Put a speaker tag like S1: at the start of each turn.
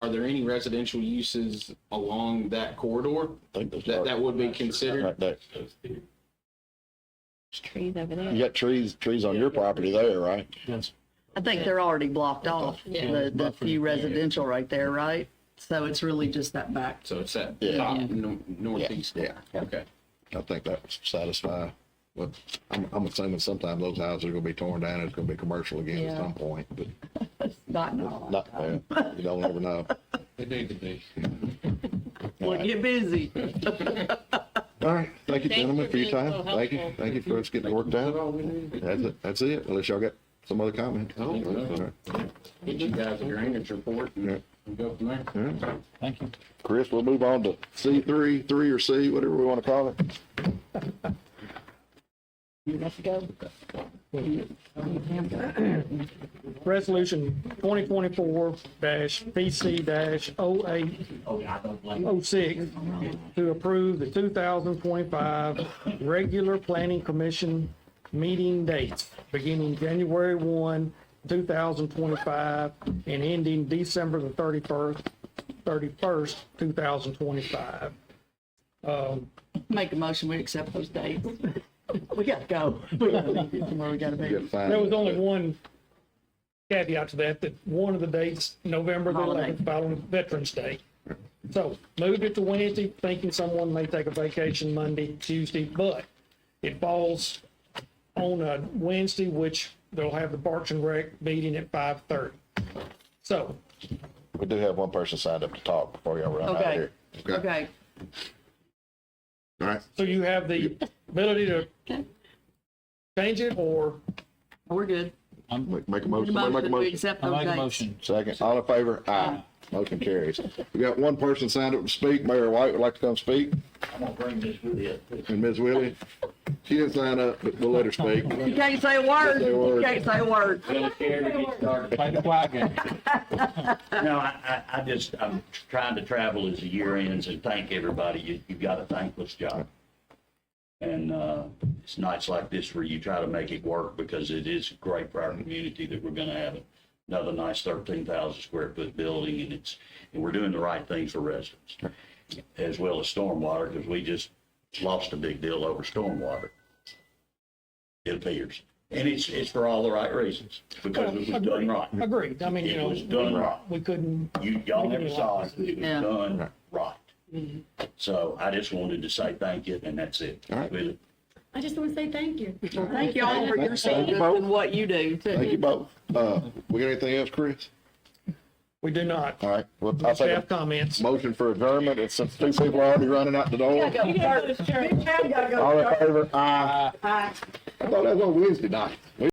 S1: are there any residential uses along that corridor
S2: I think that's
S1: that,
S2: right,
S1: that would be considered?
S2: right there.
S3: trees over there.
S2: You got trees, trees on your property there, right?
S4: I think they're already blocked off, the, the few residential right there, right? So it's really just that back.
S1: So it's that
S2: Yeah.
S1: top nor- northeast.
S2: Yeah.
S1: Okay.
S2: I think that would satisfy, but I'm, I'm assuming sometime those houses are gonna be torn down, it's gonna be commercial again at
S4: Yeah.
S2: some point, but
S4: Not, not.
S2: not, well, you don't ever know.
S1: It need to be.
S4: Well, get busy.
S2: All right, thank
S3: Thanks
S2: you, gentlemen,
S3: for
S2: for
S3: being
S2: your
S3: so
S2: time, thank you,
S3: helpful.
S2: thank you for us getting it worked out. That's it, that's it, unless y'all got some other comment. All
S1: don't know.
S2: right.
S1: Get you guys a drainage report
S2: Yeah.
S1: and and go from there.
S2: Thank you. Chris, we'll move on to C three, three or C, whatever we want to call it.
S5: Resolution twenty twenty-four PC 8 6 oh to approve the two thousand twenty-five regular planning commission meeting dates beginning January one, two thousand twenty-five and ending December the thirty-first, thirty-first, two thousand twenty-five.
S4: Make a motion, we accept those dates. We gotta go. We gotta leave it from where we gotta
S2: You
S4: be.
S2: got five.
S5: There was only one caveat to that, that one of the dates, November the
S4: Holiday.
S5: eleventh, following Veterans Day. So moved it to Wednesday, thinking someone may take a vacation Monday, Tuesday, but it falls on a Wednesday, which they'll have the Parks and Rec meeting at five thirty. So
S2: We do have one person signed up to talk before y'all run out of
S4: Okay.
S2: here. Okay,
S4: Okay,
S2: all right,
S5: So you have the ability to change it or
S4: we're good.
S2: make, make a motion, somebody make a
S4: Motion, we
S2: motion.
S4: accept
S6: I
S4: those
S6: make a
S4: dates.
S6: motion.
S2: Second, all in favor? Aye. Motion carries. We got one person signed up to speak. Mayor White would like to come speak,
S6: I'm gonna bring this with you.
S2: and Ms. Willie. She didn't sign up, but we'll let her speak.
S4: You can't say a word.
S2: Say a word.
S4: You can't say a word.
S6: Well, if you ever get started. Play the flag game.
S7: No, I, I, I just, I'm trying to travel as the year ends and thank everybody. You, you've got a thankless job. And, uh, it's nights like this where you try to make it work because it is great for our community that we're gonna have another nice thirteen thousand square foot building and it's, and we're doing the right things for residents. As well as stormwater, because we just lost a big deal over stormwater. It appears. And it's, it's for all the right reasons, because it was done right.
S5: agreed. I mean, you
S7: It was
S5: know,
S7: done right.
S5: we couldn't,
S7: You, y'all never saw it, it was
S4: Yeah.
S7: done right. So I just wanted to say thank you, and that's it.
S2: All right.
S7: Really.
S8: I just want to say thank you.
S4: Thank y'all for your
S2: Thank you
S4: service
S2: both.
S4: and what you do
S2: Thank
S4: too.
S2: you both. Uh, we got anything else, Chris?
S5: we do not.
S2: All right, well, I'll take
S5: Staff
S2: a
S5: comments.
S2: motion for adjournment. It's since two people are already running out the door.
S4: Big Chad gotta go
S2: All in favor? Aye. I thought that was on Wednesday night. We